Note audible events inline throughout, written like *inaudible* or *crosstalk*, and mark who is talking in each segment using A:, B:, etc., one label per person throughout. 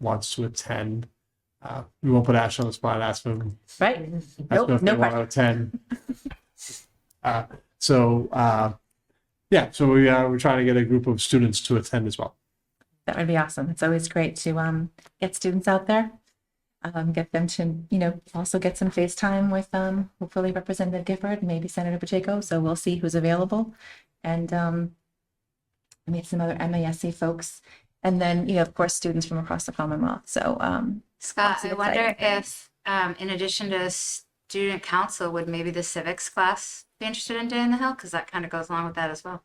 A: wants to attend. Uh, we won't put Ash on the spot. Ask them.
B: Right?
A: Ask
B: Nope,
A: them if
B: no
A: they want
B: pressure.
A: to
B: *laughs*
A: attend. uh, so uh, yeah, so we uh, we're trying to get a group of students to attend as well.
B: That would be awesome. It's always great to um, get students out there, um, get them to, you know, also get some face time with um, hopefully Representative Gifford, maybe Senator Pacheco. So we'll see who's available. And um, meet some other MASC folks. And then, you know, of course, students from across the Commonwealth. So um,
C: Scott,
B: Lots of
C: I wonder
B: exciting things.
C: if, um, in addition to student council, would maybe the civics class be interested in Day in the Hill? Because that kind of goes along with that as well.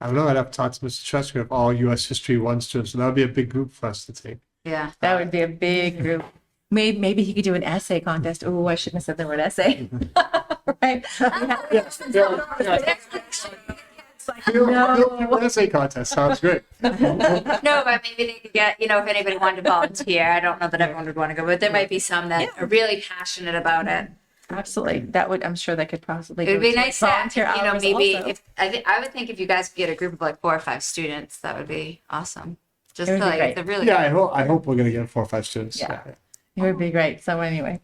A: I don't know. I'd have to talk to Mr. Cheska of all U.S. History One students. So that would be a big group for us to take.
C: Yeah.
B: that would be a big group. Maybe, maybe he could do an essay contest. Oh, I shouldn't have said the word essay. *laughs* right?
A: No. Essay contest sounds
B: *laughs*
A: great.
C: No, but maybe they could get, you know, if anybody wanted to volunteer, I don't know that everyone would want to go, but there might be some that are really passionate about
B: Mm-hmm.
C: it.
B: Absolutely. That would, I'm sure that could possibly.
C: It would
B: go
C: be
B: to
C: nice to, you
B: volunteer
C: know,
B: hours
C: maybe
B: also.
C: if, I think, I would think if you guys could get a group of like four or five students, that would be awesome. Just
B: It would
C: to,
B: be
C: like,
B: great.
C: the really.
A: Yeah, I hope I hope we're gonna get four or five students.
B: Yeah. It would be great. So anyway,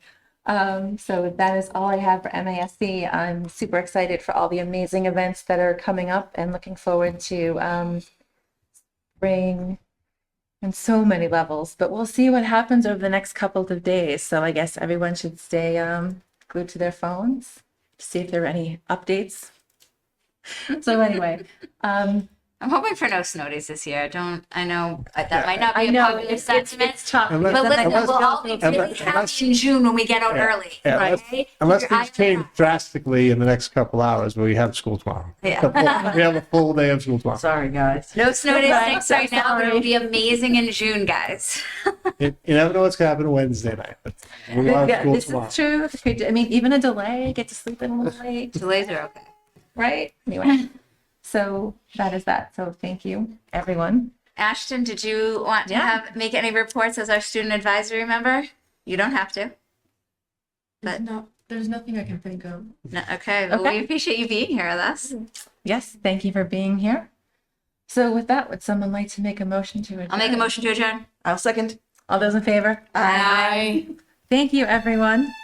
B: um, so that is all I have for MASC. I'm super excited for all the amazing events that are coming up and looking forward to um, spring on so many levels. But we'll see what happens over the next couple of days. So I guess everyone should stay um, glued to their phones to see if there are any updates. *laughs* So anyway, um,
C: I'm hoping for no snow days this year. Don't, I know, uh, that might not
B: I
C: be a
B: know
C: popular
B: it's, it's,
C: sentiment.
B: it's tough.
A: Unless-
C: But
A: Then
C: listen,
A: that
C: we'll
A: goes
C: all be
A: down for
C: really
A: the- unless-
C: happy in June when we get out
A: Yeah,
C: early,
A: yeah,
C: right?
A: unless-
C: Keep
A: Unless
C: your
A: things
C: eye
A: change
C: out.
A: drastically in the next couple hours, we have school tomorrow.
C: *laughs*
B: *laughs*
C: Yeah.
A: A full- We have a full day of school tomorrow.
B: Sorry, guys.
C: No snow days
B: Right,
C: thanks right now, but
B: sorry.
C: it'll be amazing in June, guys.
A: You you never know what's gonna happen Wednesday night. but We have
B: *laughs* Yeah,
A: school
B: this
A: tomorrow.
B: is true. If you- I mean, even a delay, get to sleep in a little late,
C: Delays are okay.
B: right? Anyway, so that is that. So thank you, everyone.
C: Ashton, did you want to
B: Yeah.
C: have, make any reports as our student advisory member? You don't have to. But-
D: There's no, there's nothing I can think of.
C: No, okay, well,
B: Okay.
C: we appreciate you being here with us.
B: Yes, thank you for being here. So with that, would someone like to make a motion to adjourn?
C: I'll make a motion to adjourn.
E: I'll second.
B: All those in favor?
C: Aye.
B: Thank you, everyone.